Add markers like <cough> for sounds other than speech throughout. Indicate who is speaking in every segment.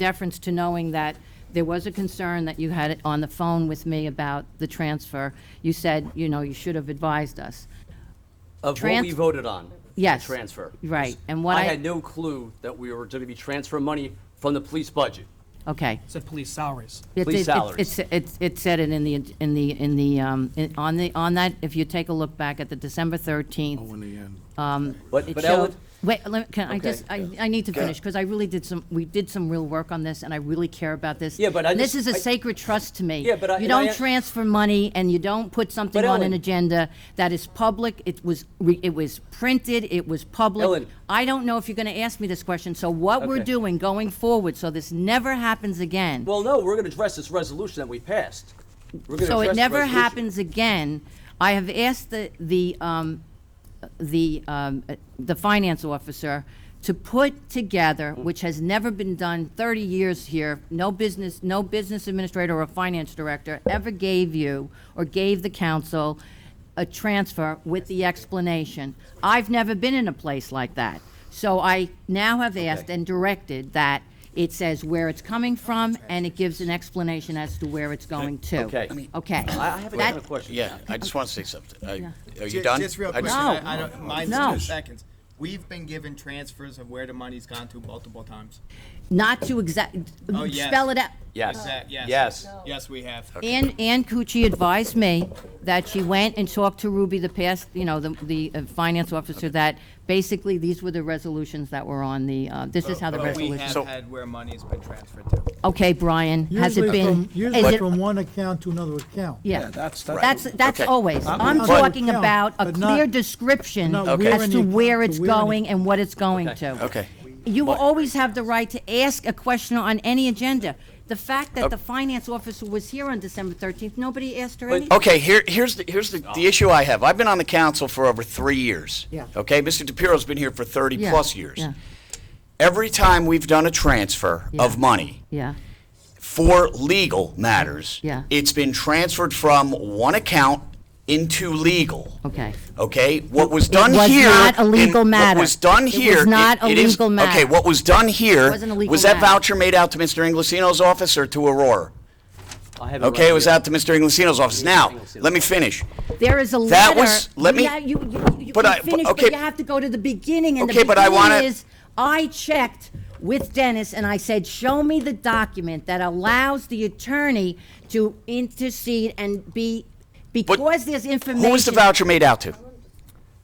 Speaker 1: deference to knowing that there was a concern that you had it on the phone with me about the transfer. You said, you know, you should have advised us.
Speaker 2: Of what we
Speaker 1: Trans-
Speaker 2: voted on. the
Speaker 1: Yes.
Speaker 2: Transfer.
Speaker 1: Right, and what I-
Speaker 2: I had no clue that we were going to be transferring money from the police budget.
Speaker 1: Okay.
Speaker 3: Said police salaries.
Speaker 1: It-
Speaker 2: Police
Speaker 1: it- it-
Speaker 2: salaries.
Speaker 1: It, it, it said it in the, in the, in the, um, in- on the, on that, if you take a look back at the December 13th.
Speaker 4: in the end.
Speaker 2: But,
Speaker 1: it
Speaker 2: but
Speaker 1: showed-
Speaker 2: Ellen,
Speaker 1: Wait, let, me- can I
Speaker 2: Okay.
Speaker 1: just, I, I need to finish, because I really did some, we did some real work on this, and I really care about this.
Speaker 2: Yeah, but I
Speaker 1: And This
Speaker 2: just-
Speaker 1: is a
Speaker 2: I-
Speaker 1: sacred trust to me.
Speaker 2: Yeah, but I-
Speaker 1: You
Speaker 2: and I-
Speaker 1: don't transfer money, and you don't put something
Speaker 2: But
Speaker 1: on an
Speaker 2: Ellen-
Speaker 1: agenda that is public, it was, re- it was printed, it was public.
Speaker 2: Ellen.
Speaker 1: I don't know if you're gonna ask me this question, so what we're
Speaker 2: Okay.
Speaker 1: doing going forward, so this never happens again.
Speaker 2: well, no, we're going to address this resolution that we passed. We're gonna
Speaker 1: So it
Speaker 2: address the
Speaker 1: never
Speaker 2: resolution.
Speaker 1: happens again. I have asked the, the, um, the, um, uh, the finance officer to put together, which has never been done 30 years here, no business, no business administrator or finance director ever gave you or gave the council a transfer with the explanation. I've never been in a place like that. So I now have asked and directed that it says where it's coming from and it gives an explanation as to where it's going to.
Speaker 2: Okay.
Speaker 1: Okay.
Speaker 2: I I have a- I have a question.
Speaker 5: Yeah, I just want to say something. I- Are you
Speaker 6: Ju-
Speaker 5: done?
Speaker 6: Just real
Speaker 5: I
Speaker 6: quick.
Speaker 5: just-
Speaker 1: No.
Speaker 6: I, I don't, mine's
Speaker 1: No.
Speaker 6: two seconds. We've been given transfers of where the money's gone to multiple times.
Speaker 1: Not to exact,
Speaker 6: Oh, yes.
Speaker 1: spell it out.
Speaker 2: Yes.
Speaker 6: Exact- yes.
Speaker 2: Yes.
Speaker 6: Yes, we have.
Speaker 1: Ann, Ann Cucci advised me that she went and talked to Ruby, the past, you know, the, the uh, finance officer, that basically these were the resolutions that were on the, uh, this is how the
Speaker 6: But we
Speaker 1: resolution.
Speaker 6: have
Speaker 5: So-
Speaker 6: had where money's been transferred to.
Speaker 1: Okay, Brian, has it
Speaker 7: Usually
Speaker 1: been?
Speaker 7: from-
Speaker 1: is
Speaker 7: Usually
Speaker 1: it-
Speaker 7: from one account to another account.
Speaker 1: Yeah,
Speaker 4: That's,
Speaker 1: that's, that's
Speaker 5: Okay.
Speaker 1: always. I'm
Speaker 7: not-
Speaker 1: talking
Speaker 7: Yeah,
Speaker 1: about a
Speaker 7: but not-
Speaker 1: clear description
Speaker 7: not
Speaker 5: Okay. where
Speaker 1: as
Speaker 7: in
Speaker 1: to
Speaker 7: the
Speaker 1: where
Speaker 7: account,
Speaker 1: it's
Speaker 7: but where in the-
Speaker 1: going and what it's going to.
Speaker 5: Okay.
Speaker 1: You will always have the right to ask a question on any agenda. The fact
Speaker 5: Oh.
Speaker 1: that the finance officer was here on December 13th, nobody asked her anything.
Speaker 5: Okay, here, here's the, here's the, the issue I have. I've been on the council for over three years.
Speaker 1: Yeah.
Speaker 5: Okay, Mr. DePiero's been here for
Speaker 1: Yeah,
Speaker 5: thirty-plus years.
Speaker 1: yeah.
Speaker 5: Every time we've done a transfer of
Speaker 1: Yeah.
Speaker 5: money
Speaker 1: Yeah,
Speaker 5: for legal matters,
Speaker 1: Yeah.
Speaker 5: it's been transferred from one account into legal.
Speaker 1: okay.
Speaker 5: Okay, what was done
Speaker 1: was
Speaker 5: here.
Speaker 1: not a
Speaker 5: in-
Speaker 1: legal matter.
Speaker 5: What was done
Speaker 1: It
Speaker 5: here.
Speaker 1: was not a
Speaker 5: it is-
Speaker 1: legal matter.
Speaker 5: Okay, what was done here.
Speaker 1: wasn't a legal
Speaker 5: Was that
Speaker 1: matter.
Speaker 5: voucher made out to Mr. Inglesino's office or to Aurora?
Speaker 2: I have
Speaker 5: Okay, it was
Speaker 2: right
Speaker 5: out to Mr. Inglesino's office. Now, let me finish.
Speaker 1: There is a letter.
Speaker 5: That was- let me-
Speaker 1: Yeah, you, you, you
Speaker 5: But
Speaker 1: can
Speaker 5: I- but-
Speaker 1: finish, but
Speaker 5: okay.
Speaker 1: you have to go to the beginning, and the
Speaker 5: Okay, but I wanna-
Speaker 1: beginning is, I checked with Dennis, and I said, show me the document that allows the attorney to intercede and be, because there's information.
Speaker 5: Who was the voucher made out to?
Speaker 2: here.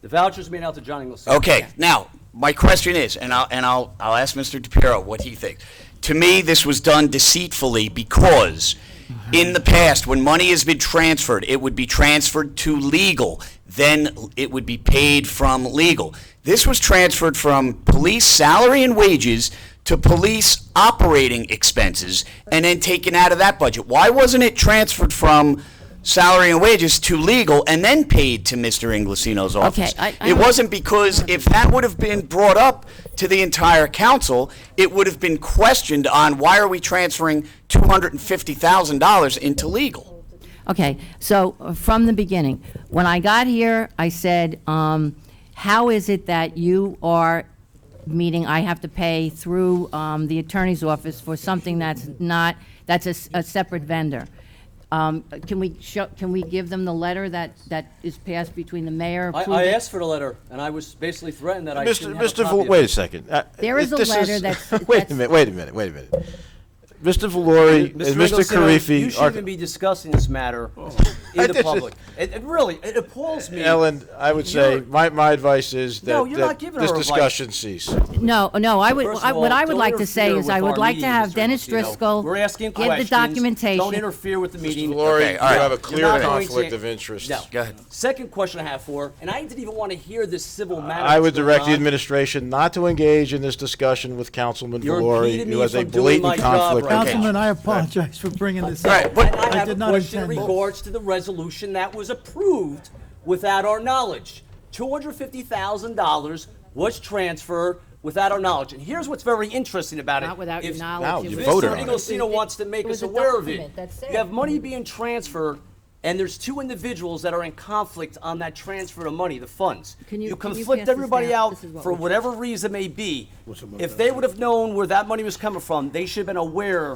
Speaker 2: The vouchers made out to John Inglesino.
Speaker 5: Okay, now, my question is, and I'll, and I'll, I'll ask Mr. DePiero what he thinks. To me, this was done deceitfully because in the past, when money has been transferred, it would be transferred to legal, then it would be paid from legal. This was transferred from police salary and wages to police operating expenses and then taken out of that budget. Why wasn't it transferred from salary and wages to legal and then paid to Mr. Inglesino's office?
Speaker 1: I- I
Speaker 5: It
Speaker 1: don't-
Speaker 5: wasn't wasn't because if that would have been brought up to the entire council, it would have been questioned on why are we transferring $250,000 into legal?
Speaker 1: Okay, so uh, from the beginning, when I got here, I said, um, how is it that you are, meaning I have to pay through, um, the attorney's office for something that's not, that's a, s- a separate vendor? Um, can we show, can we give them the letter that, that is passed between the mayor?
Speaker 2: I, I
Speaker 1: approving-
Speaker 2: asked for the letter, and I was basically threatened that I
Speaker 8: Mr.
Speaker 2: shouldn't have a
Speaker 8: Mr.
Speaker 2: copy
Speaker 8: Val-
Speaker 2: of
Speaker 8: wait a
Speaker 2: it.
Speaker 8: second. Uh,
Speaker 1: There is a
Speaker 8: this
Speaker 1: letter that's-
Speaker 8: <laughs> Wait
Speaker 1: that's-
Speaker 8: a minute, wait a minute, wait a minute. Mr. Valori and Mr.
Speaker 2: Inglesino, You
Speaker 8: Karifi
Speaker 2: shouldn't even
Speaker 8: are,
Speaker 2: be discussing this matter
Speaker 8: Oh. I
Speaker 2: in the
Speaker 8: just-
Speaker 2: public. It, it really, it appalls me.
Speaker 8: Ellen, I would say,
Speaker 2: You're-
Speaker 8: my, my advice is
Speaker 2: No,
Speaker 8: that
Speaker 2: you're
Speaker 8: that
Speaker 2: not giving
Speaker 8: this
Speaker 2: her advice.
Speaker 8: discussion cease.
Speaker 1: No, no, I would,
Speaker 2: First of
Speaker 1: I- what
Speaker 2: all,
Speaker 1: I would
Speaker 2: don't
Speaker 1: like to say
Speaker 2: interfere
Speaker 1: is I
Speaker 2: with
Speaker 1: would
Speaker 2: our
Speaker 1: like to
Speaker 2: meeting,
Speaker 1: have
Speaker 2: Mr.
Speaker 1: Dennis
Speaker 2: Lucino.
Speaker 1: Driscoll.
Speaker 2: We're asking
Speaker 1: give the
Speaker 2: questions. Don't
Speaker 1: documentation.
Speaker 2: interfere with the meeting.
Speaker 8: Valori,
Speaker 5: Okay,
Speaker 8: you
Speaker 5: all right.
Speaker 8: have a
Speaker 5: You're
Speaker 8: clear
Speaker 2: You're not going to-
Speaker 8: conflict of interest.
Speaker 2: No.
Speaker 5: Go ahead.
Speaker 2: Second question I have for, and I didn't even want to hear this civil matter.
Speaker 8: I would
Speaker 2: that's going
Speaker 8: direct the
Speaker 2: on.
Speaker 8: administration not to engage in this discussion with Councilman
Speaker 2: You're
Speaker 8: Valori,
Speaker 2: impeding
Speaker 8: who
Speaker 2: me
Speaker 8: has a
Speaker 2: from doing my
Speaker 8: blatant
Speaker 2: job
Speaker 8: conflict.
Speaker 2: right
Speaker 8: of
Speaker 2: now.
Speaker 8: interest.
Speaker 7: Councilman, I apologize for bringing this
Speaker 5: All
Speaker 7: up.
Speaker 5: right, but-
Speaker 2: And I
Speaker 7: I
Speaker 2: have a
Speaker 7: did not
Speaker 2: question in
Speaker 7: intend-
Speaker 2: regards to the resolution that was approved without our knowledge. $250,000 was transferred without our knowledge. And here's what's very interesting about it.
Speaker 1: Not without your
Speaker 2: If-
Speaker 1: knowledge.
Speaker 8: you
Speaker 1: It was-
Speaker 8: voted
Speaker 2: Mr.
Speaker 8: on it.
Speaker 2: Inglesino wants to make
Speaker 1: It was
Speaker 2: us
Speaker 1: a
Speaker 2: aware of
Speaker 1: document
Speaker 2: it.
Speaker 1: that said-
Speaker 2: You have money being transferred and there's two individuals that are in conflict on that transfer of money, the funds.
Speaker 1: Can you- can you pass
Speaker 2: conflict
Speaker 1: this
Speaker 2: everybody
Speaker 1: down?
Speaker 2: out
Speaker 1: This is what
Speaker 2: for
Speaker 1: we're-
Speaker 2: whatever reason may be. If they would have known where that money was coming from, they should have been aware